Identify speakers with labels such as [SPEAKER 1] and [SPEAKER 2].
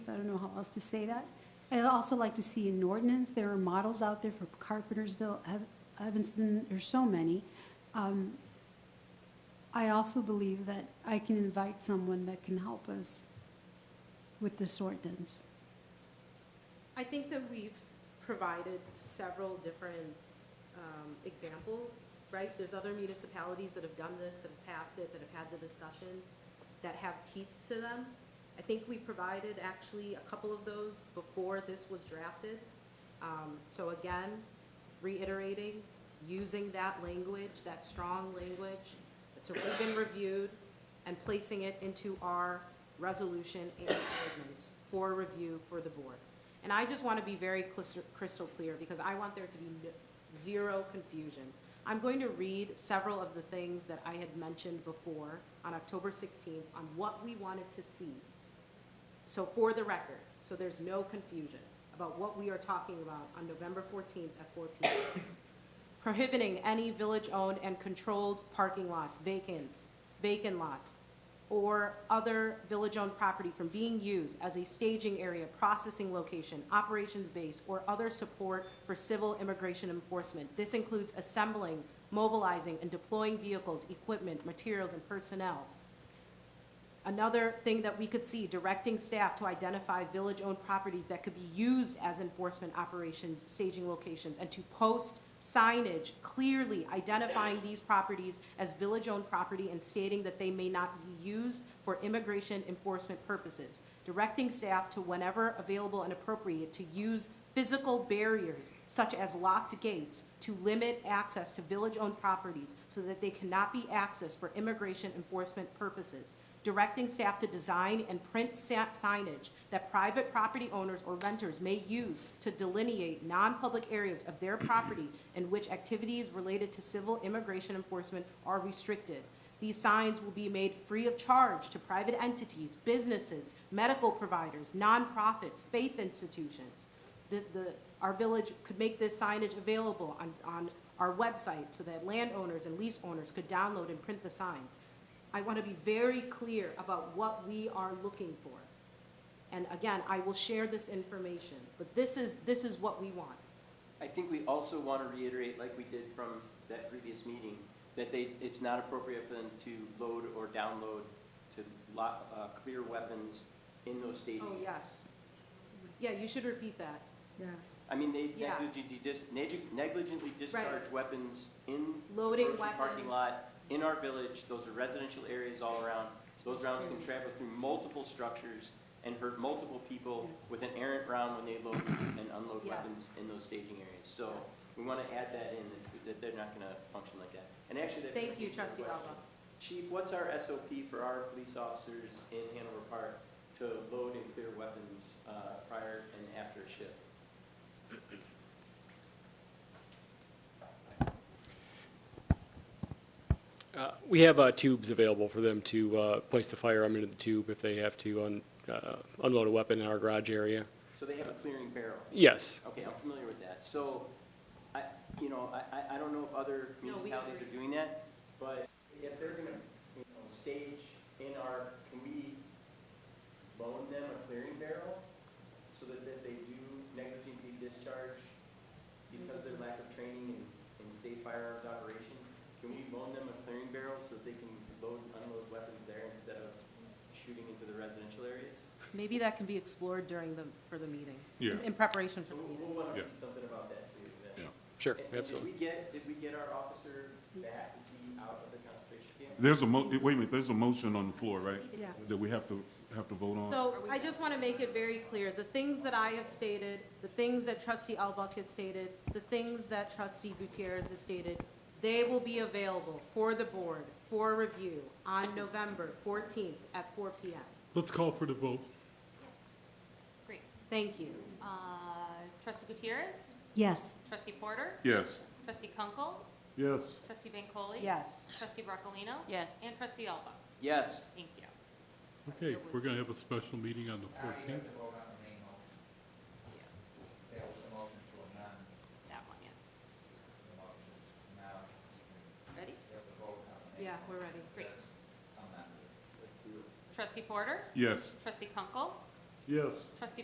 [SPEAKER 1] I don't know how else to say that. I'd also like to see an ordinance, there are models out there for Carpentersville, Ev- Evanston, there's so many. Um, I also believe that I can invite someone that can help us with this ordinance.
[SPEAKER 2] I think that we've provided several different um, examples, right? There's other municipalities that have done this, that have passed it, that have had the discussions, that have teeth to them. I think we provided actually a couple of those before this was drafted. Um, So again, reiterating, using that language, that strong language, that's already been reviewed, and placing it into our resolution and ordinance for review for the board. And I just want to be very clis- crystal clear, because I want there to be no- zero confusion. I'm going to read several of the things that I had mentioned before on October 16th on what we wanted to see. So for the record, so there's no confusion about what we are talking about on November 14th at 4 p.m prohibiting any village-owned and controlled parking lots, vacant, vacant lots, or other village-owned property from being used as a staging area, processing location, operations base, or other support for civil immigration enforcement. This includes assembling, mobilizing, and deploying vehicles, equipment, materials, and personnel Another thing that we could see, directing staff to identify village-owned properties that could be used as enforcement operations, staging locations, and to post signage clearly identifying these properties as village-owned property and stating that they may not be used for immigration enforcement purposes. Directing staff to whenever available and appropriate to use physical barriers such as locked gates to limit access to village-owned properties so that they cannot be accessed for immigration enforcement purposes. Directing staff to design and print sa- signage that private property owners or renters may use to delineate non-public areas of their property in which activities related to civil immigration enforcement are restricted. These signs will be made free of charge to private entities, businesses, medical providers, nonprofits, faith institutions the, the, our village could make this signage available on, on our website so that landowners and lease owners could download and print the signs. I want to be very clear about what we are looking for. And again, I will share this information, but this is, this is what we want.
[SPEAKER 3] I think we also want to reiterate, like we did from that previous meeting, that they, it's not appropriate for them to load or download to lo uh, clear weapons in those
[SPEAKER 2] Oh,
[SPEAKER 3] stadiums.
[SPEAKER 2] yes. Yeah, you should repeat that.
[SPEAKER 4] Yeah,
[SPEAKER 3] I mean, they
[SPEAKER 2] Yeah.
[SPEAKER 3] negligently, dis- neg- negligently discharge weapons in
[SPEAKER 2] Loading
[SPEAKER 3] grocery
[SPEAKER 2] weapons.
[SPEAKER 3] parking lot, in our village, those are residential areas all around. Those rounds can travel through multiple structures and hurt multiple people
[SPEAKER 2] Yes.
[SPEAKER 3] with an errant round when they load and unload
[SPEAKER 2] Yes.
[SPEAKER 3] weapons in those staging areas. So
[SPEAKER 2] Yes.
[SPEAKER 3] we want to add that in, that- that they're not going to function like that. And actually, that.
[SPEAKER 2] Thank you,
[SPEAKER 3] brings
[SPEAKER 2] trustee
[SPEAKER 3] me to a question.
[SPEAKER 2] Alba.
[SPEAKER 3] Chief, what's our SOP for our police officers in Hanover Park to load and clear weapons uh, prior and after a shift?
[SPEAKER 5] Uh, We have uh, tubes available for them to uh, place the firearm into the tube if they have to un- uh, unload a weapon in our garage area.
[SPEAKER 3] So they have a clearing barrel.
[SPEAKER 5] Yes,
[SPEAKER 3] Okay, I'm familiar with that. So, I, you know, I, I- I don't know if other
[SPEAKER 2] No, we
[SPEAKER 3] municipalities are doing that, but if they're gonna, you know, stage in our, can we loan them a clearing barrel? So that if they do negligently discharge because of their lack of training and, and safe firearms operation, can we loan them a clearing barrel so that they can load, and unload weapons there instead of shooting into the residential areas?
[SPEAKER 2] Maybe that can be explored during the, for the meeting.
[SPEAKER 6] Yeah.
[SPEAKER 2] In preparation for
[SPEAKER 3] So
[SPEAKER 2] the
[SPEAKER 3] we'll,
[SPEAKER 2] meeting.
[SPEAKER 3] we'll wanna
[SPEAKER 6] Yeah.
[SPEAKER 3] see something about that too, then.
[SPEAKER 6] Yeah.
[SPEAKER 5] sure,
[SPEAKER 3] And- and Did
[SPEAKER 5] absolutely.
[SPEAKER 3] we get, did we get our officer back? Is he out of the concentration camp?
[SPEAKER 6] There's a mo, wait a minute, there's a motion on the floor, right?
[SPEAKER 1] Yeah.
[SPEAKER 6] That we have to, have to vote on?
[SPEAKER 2] So I just want to make it very clear, the things that I have stated, the things that trustee Albuck has stated, the things that trustee Gutierrez has stated, they will be available for the board for review on November 14th at 4 PM.
[SPEAKER 6] Let's call for the vote.
[SPEAKER 7] Great.
[SPEAKER 2] Thank you.
[SPEAKER 7] Uh, Trustee Gutierrez,
[SPEAKER 1] Yes,
[SPEAKER 7] Trustee Porter,
[SPEAKER 6] Yes.
[SPEAKER 7] Trustee Kunkel,
[SPEAKER 6] Yes.
[SPEAKER 7] Trustee Bancole.
[SPEAKER 2] Yes.
[SPEAKER 7] Trustee Broccolino.
[SPEAKER 8] Yes.
[SPEAKER 7] And Trustee Alba.
[SPEAKER 3] Yes.
[SPEAKER 7] Thank you.
[SPEAKER 6] Okay, we're gonna have a special meeting on the
[SPEAKER 9] Now you
[SPEAKER 6] fourteenth.
[SPEAKER 9] have to vote on the main motion.
[SPEAKER 7] Yes,
[SPEAKER 9] That was the motion to amend
[SPEAKER 7] That one, yes.
[SPEAKER 9] the motions. Now
[SPEAKER 7] Ready?
[SPEAKER 9] you have to vote on the main.
[SPEAKER 2] Yeah, we're ready.
[SPEAKER 7] Great.
[SPEAKER 9] That's amended.
[SPEAKER 7] Trustee Porter,
[SPEAKER 6] Yes.
[SPEAKER 7] Trustee Kunkel,
[SPEAKER 10] Yes.
[SPEAKER 6] Trustee